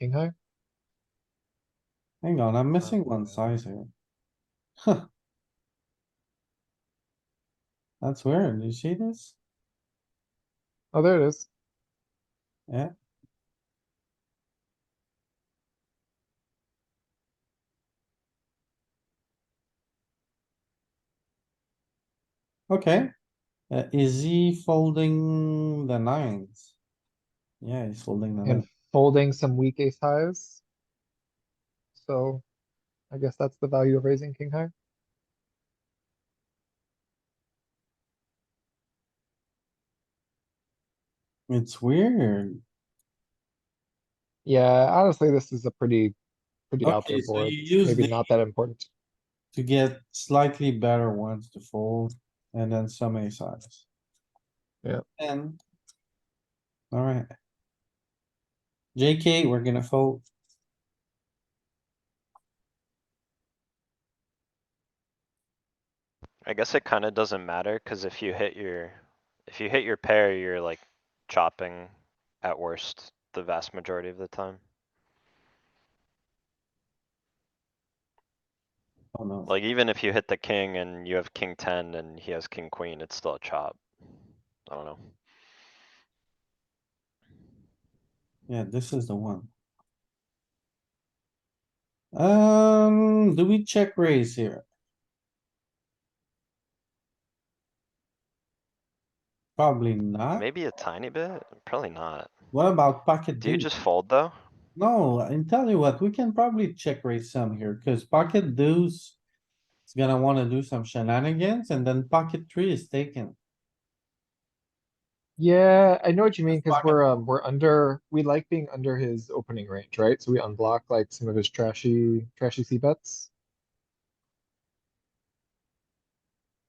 King high? Hang on, I'm missing one size here. Huh. That's weird. You see this? Oh, there it is. Yeah. Okay, uh, is he folding the nines? Yeah, he's folding the And nine. folding some weak ace highs. So I guess that's the value of raising king high. It's weird. Yeah, honestly, this is a pretty, pretty out there Okay, so board. you use Maybe the not that important. to get slightly better ones to fold and then some ace size. Yeah. And. Alright. JK, we're gonna fold. I guess it kinda doesn't matter, cuz if you hit your, if you hit your pair, you're like chopping at worst the vast majority of the time. Oh no, Like even if you hit the king and you have king ten and he has king queen, it's still a chop. I don't know. yeah, this is the one. Um, do we check raise here? Probably not. Maybe a tiny bit, probably not. What about pocket Do you deuce? just fold though? No, and tell you what, we can probably check raise some here, cause pocket deuce. is gonna wanna do some shenanigans and then pocket three is taken. Yeah, I know what you mean, cause block it. we're, um, we're under, we like being under his opening range, right? So we unblock like some of his trashy, trashy C bets.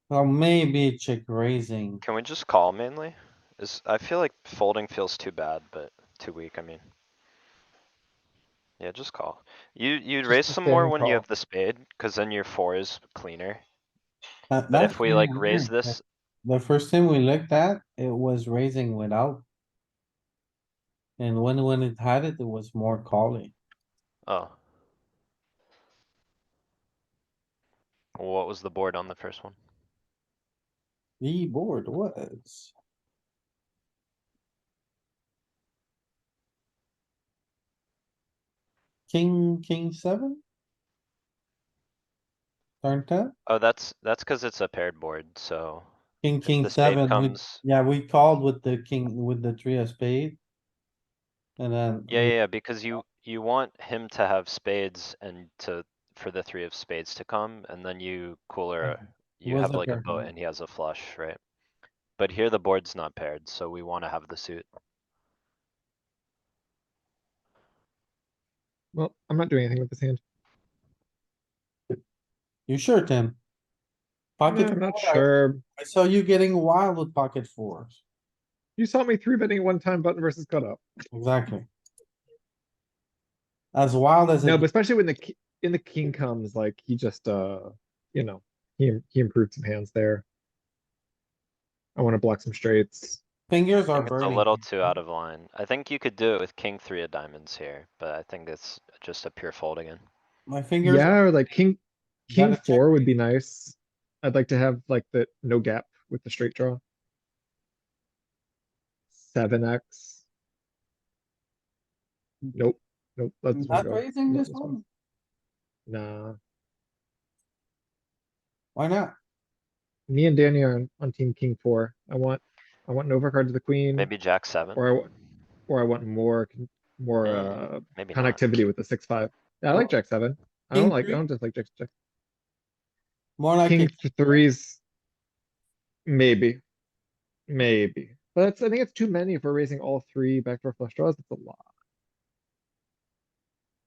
Well, maybe check raising. Can we just call mainly? Is, I feel like folding feels too bad, but too weak, I mean. Yeah, just call. You, you'd Just raise a some more thin when you call. have the spade, cause then your four is cleaner. That- But that's if we like kinda raise weird, this, but The first thing we looked at, it was raising without. And when, when it had it, it was more calling. oh. What was the board on the first one? The board was. King, king seven? Turn ten, Oh, that's, that's cuz it's a paired board, so king, if king the spade seven, we- comes. yeah, we called with the king, with the three of spade. And then. Yeah, we- yeah, yeah, because you, you want him to have spades and to, for the three of spades to come, and then you cooler, Okay. you was have a like a paired boat board. and he has a flush, right? But here the board's not paired, so we wanna have the suit. Well, I'm not doing anything with this hand. You sure, Tim? Yeah, Pocket. I'm not four, I- sure. I saw you getting wild with pocket fours. You saw me three betting one time button versus cutoff. Exactly. As wild as No, but it, especially when the, ki- in the king comes, like, he just, uh, you know, he, he improved some hands there. I wanna block some straights. fingers I Oh, are think it's a burning. little too out of line. I think you could do it with king three of diamonds here, but I think it's just a pure fold again. My fingers. Yeah, or like king, You gotta king check four would be nice. I'd like to have like the no gap with the straight draw. Seven X. Nope, nope. let this one Not go. raising Let this one? Nah, Why not? me and Danny are on, on team king four. I want, I want an overcard to the queen, Maybe jack seven, Mm. or I, wa- or I want more, con- more, Mm. uh, maybe not. connectivity with the six, five. I like jack seven. I don't King like, I three? don't just like jack, jack. More like, King it- th- threes. Maybe. Maybe. But that's, I think it's too many if we're raising all three backdoor flush draws. It's a lot.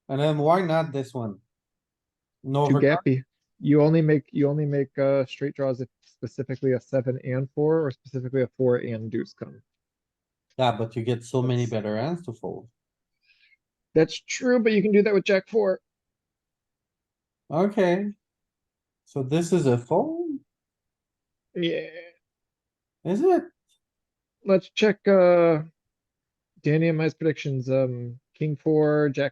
and then why not this one? No, Too overcard? gappy. You only make, you only make, uh, straight draws if specifically a seven and four or specifically a four and deuce come. yeah, but you get so many That's- better hands to fold. That's true, but you can do that with jack four. Okay. So this is a fold, Yeah, is it? let's check, uh, Danny and my predictions. Um, king four, jack